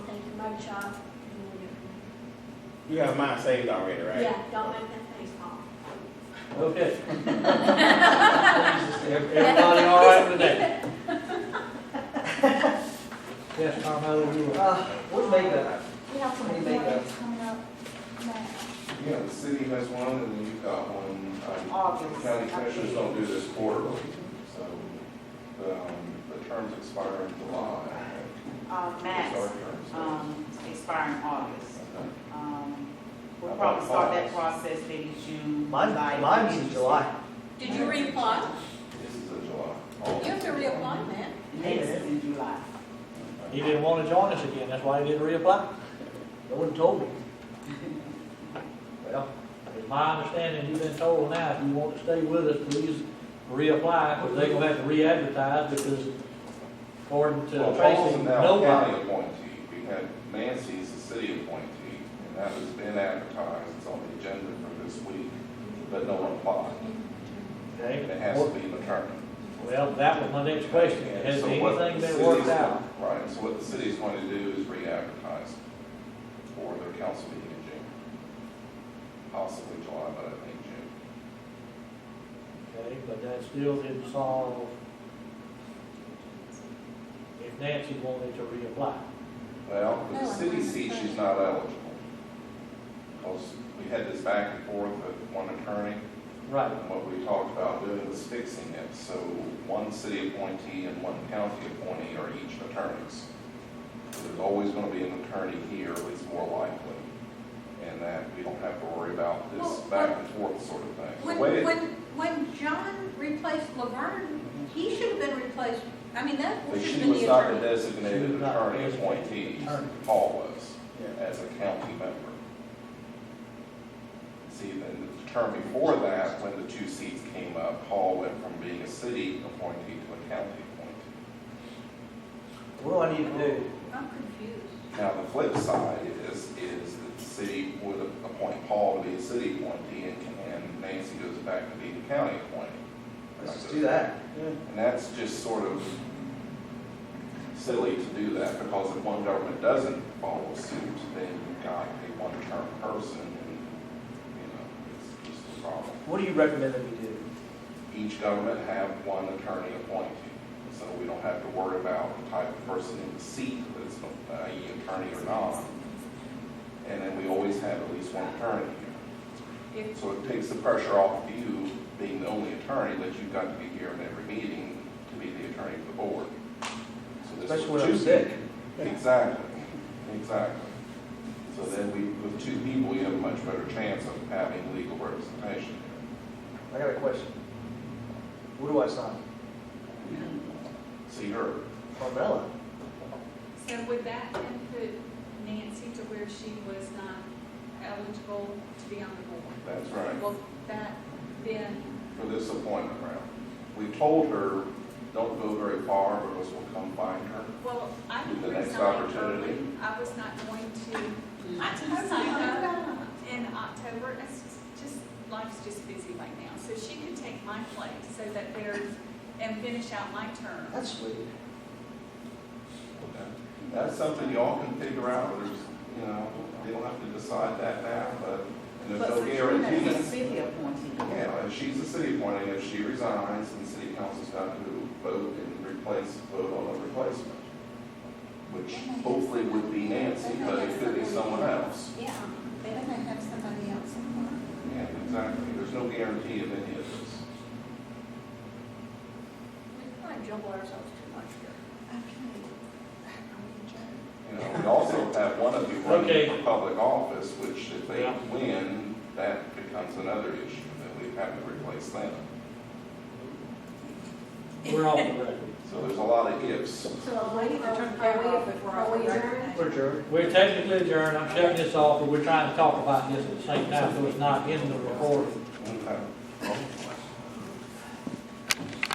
one shot and we'll get them. You have mine saved already, right? Yeah, don't make that face pop. Okay. Everybody all right with that? Yes, Tom, how are you? Uh, what makeup? We have Uh, some What do you make projects coming up now. You know, the city has one, and then you've got one, um, August. county commissioners don't do this quarterly, so, um, the terms expire in July. Uh, It's our Max, terms. um, expiring August. Okay. Um, we'll How probably about start that August? process maybe June. Mine, July, mine's in August. July. Did you reapply? This is in July. You have to reapply, man. Next is in July. He didn't want to join us again, that's why he didn't reapply. No one told me. Well, it's my understanding, you've been told now, if you want to stay with us, please reapply, because they're gonna have to re-advertise, because according to Well, Paul's Tracy, now a nobody. county appointee, we had Nancy's a city appointee, and that has been advertised, it's on the agenda for this week, but no one applied, Okay? and it has to be maternity. Well, that was my next question, has So what the anything been city's worked go- out? Right, so what the city's going to do is re-advertise for their council meeting in June. Possibly July, but I think June. Okay, but that still didn't solve if Nancy wanted to reapply. Well, No, but the I'm city not seat, sure. she's not eligible. Because we had this back and forth with one attorney, Right. and what we talked about doing was fixing it. So one city appointee and one county appointee are each attorneys. So There's always going to be an attorney here, it's more likely, and that we don't have to worry about this Well, back and forth sort of thing. The When, way it- when, when John replaced Laverne, he should have been replaced, I mean, that But should have she been was the not the attorney. She designated was not the attorney designated appointee, attorney. Paul was, Yeah. as a county member. See, then the term before that, when the two seats came up, Paul went from being a city appointee to a county appointee. What do I need to do? I'm confused. Now, the flip side is, is that the city would appoint Paul to be a city appointee, and and Nancy goes back to being a county appointee. Let's just do that. And that's just sort of silly to do that, because if one government doesn't follow suit, then you've got a one-term person, and, you know, it's just a problem. What do you recommend that we do? Each government have one attorney appointed, so we don't have to worry about the type of person in the seat, that's uh, e attorney or not. And then we always have at least one attorney here. If- So it takes the pressure off of you being the only attorney, that you've got to be here in every meeting to be the attorney of the board. So this Especially with when I'm two- sick. Exactly, exactly. So then we, with two people, you have a much better chance of having legal representation. I got a question. Where do I sign? See her. Carmella? So would that then put Nancy to where she was not eligible to be on the That's right. board? Well, that then, for this appointment round. We told her, don't go very far, or else we'll come find her. well, I The didn't next resign opportunity. early. I was not going to, I I signed totally agree. in October, it's just, life's just busy right now. So she could take my place so that there's, and finish out my term. That's sweet. That's something y'all can figure out, there's, you know, they don't have to decide that now, but, and there's But no Katrina is a guarantees. city appointee. Yeah, and she's a city appointee, if she resigns, and city council's got to vote and replace, vote on a replacement, which hopefully would be Nancy, but it could be someone else. Yeah, they don't have somebody else in mind. Yeah, exactly, there's no guarantee of any of this. We kind of jumble ourselves too much here. Okay. You know, we also have one of you running Okay. for public office, which if they Yeah. win, that becomes another issue, that we have to replace them. We're off the record. So there's a lot of ifs. So I'm waiting for, are we, are we adjourned? We're adjourned. We're technically adjourned, I'm shutting this off, but we're trying to talk about this at the same time, so it's not in the recording. Okay.